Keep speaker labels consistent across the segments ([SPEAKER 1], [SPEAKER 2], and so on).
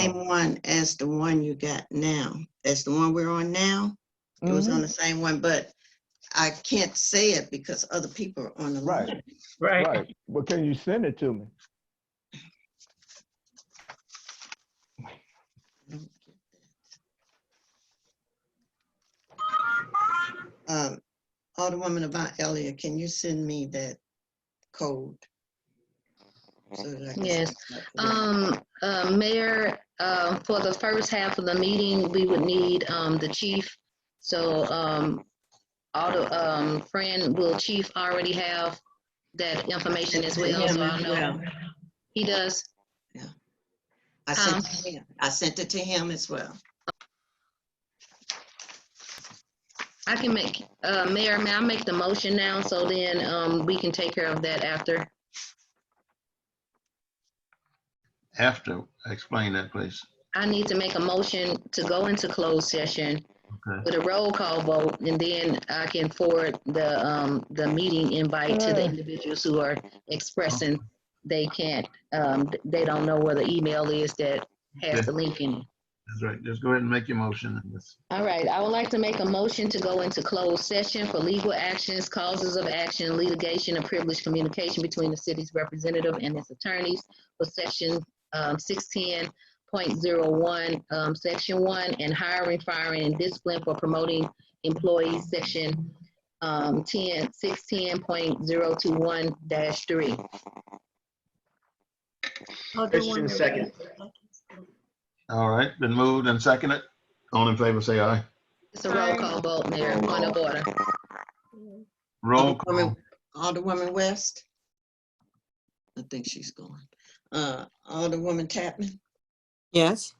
[SPEAKER 1] same one as the one you got now. That's the one we're on now. It was
[SPEAKER 2] Mhm.
[SPEAKER 1] on the same one, but I can't say it because other people are on the
[SPEAKER 2] Right.
[SPEAKER 1] line.
[SPEAKER 3] Right.
[SPEAKER 2] Right, but can you send it to me?
[SPEAKER 1] Um, Alderwoman Avant Elliott, can you send me that code? So that I can-
[SPEAKER 4] Yes. Um, uh, Mayor, uh, for the first half of the meeting, we would need, um, the chief. So, um, all the, um, Fran, will chief already have that information as well? So I know He does?
[SPEAKER 1] I sent it to him. I sent it to him as well.
[SPEAKER 4] I can make, uh, Mayor, may I make the motion now? So then, um, we can take care of that after.
[SPEAKER 5] After, explain that, please.
[SPEAKER 4] I need to make a motion to go into closed session
[SPEAKER 5] Okay.
[SPEAKER 4] with a roll call vote, and then I can forward the, um, the meeting invite to the
[SPEAKER 2] Uh.
[SPEAKER 4] individuals who are expressing they can't, um, they don't know where the email is that has the link in it.
[SPEAKER 5] That's right. Just go ahead and make your motion. and let's-
[SPEAKER 4] All right, I would like to make a motion to go into closed session for legal actions, causes of action, litigation, and privileged communication between the city's representative and its attorneys for section six ten point zero one, um, section one, and hiring, firing, and discipline for promoting employees, section um, ten, six ten point zero two one dash three.
[SPEAKER 3] Christian second.
[SPEAKER 5] All right, been moved and seconded. All in favor, say aye.
[SPEAKER 4] It's a roll call vote, Mayor, point of order.
[SPEAKER 5] Roll call.
[SPEAKER 1] Alderwoman West? I think she's gone. Uh, Alderwoman Chapman,
[SPEAKER 6] Yes.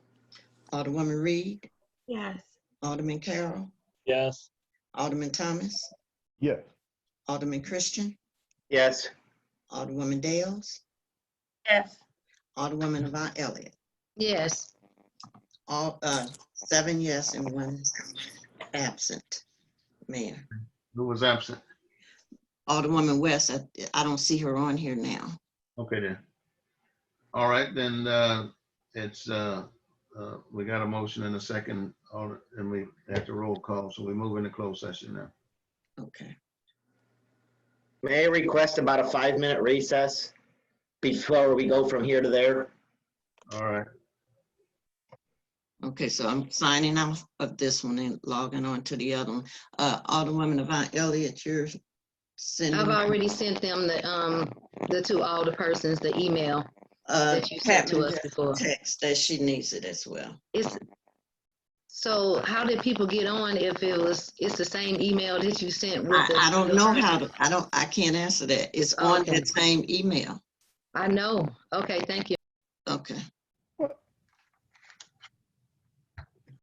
[SPEAKER 1] Alderwoman Reed,
[SPEAKER 7] Yes.
[SPEAKER 1] Alderman Carroll,
[SPEAKER 3] Yes.
[SPEAKER 1] Alderman Thomas,
[SPEAKER 2] Yes.
[SPEAKER 1] Alderman Christian,
[SPEAKER 3] Yes.
[SPEAKER 1] Alderwoman Dales,
[SPEAKER 7] Yes.
[SPEAKER 1] Alderwoman Avant Elliott.
[SPEAKER 4] Yes.
[SPEAKER 1] All, uh, seven yes and one absent, Mayor.
[SPEAKER 5] Who was absent?
[SPEAKER 1] Alderwoman West, I, I don't see her on here now.
[SPEAKER 5] Okay then. All right, then, uh, it's, uh, uh, we got a motion and a second, all right, and we have to roll call, so we move into closed session now.
[SPEAKER 1] Okay.
[SPEAKER 3] May I request about a five-minute recess before we go from here to there?
[SPEAKER 5] All right,
[SPEAKER 1] Okay, so I'm signing off of this one and logging on to the other one. Uh, Alderwoman Avant Elliott, you're sending.
[SPEAKER 4] I've already sent them the, um, the two older persons, the email
[SPEAKER 1] Uh,
[SPEAKER 4] that you sent to
[SPEAKER 1] Chapman
[SPEAKER 4] us before.
[SPEAKER 1] text that she needs it as well.
[SPEAKER 4] It's, so how did people get on if it was, it's the same email that you sent with
[SPEAKER 1] I,
[SPEAKER 4] the?
[SPEAKER 1] I don't know how to, I don't, I can't answer that. It's on
[SPEAKER 4] Oh, Okay.
[SPEAKER 1] that same email.
[SPEAKER 4] I know. Okay, thank you.
[SPEAKER 1] Okay.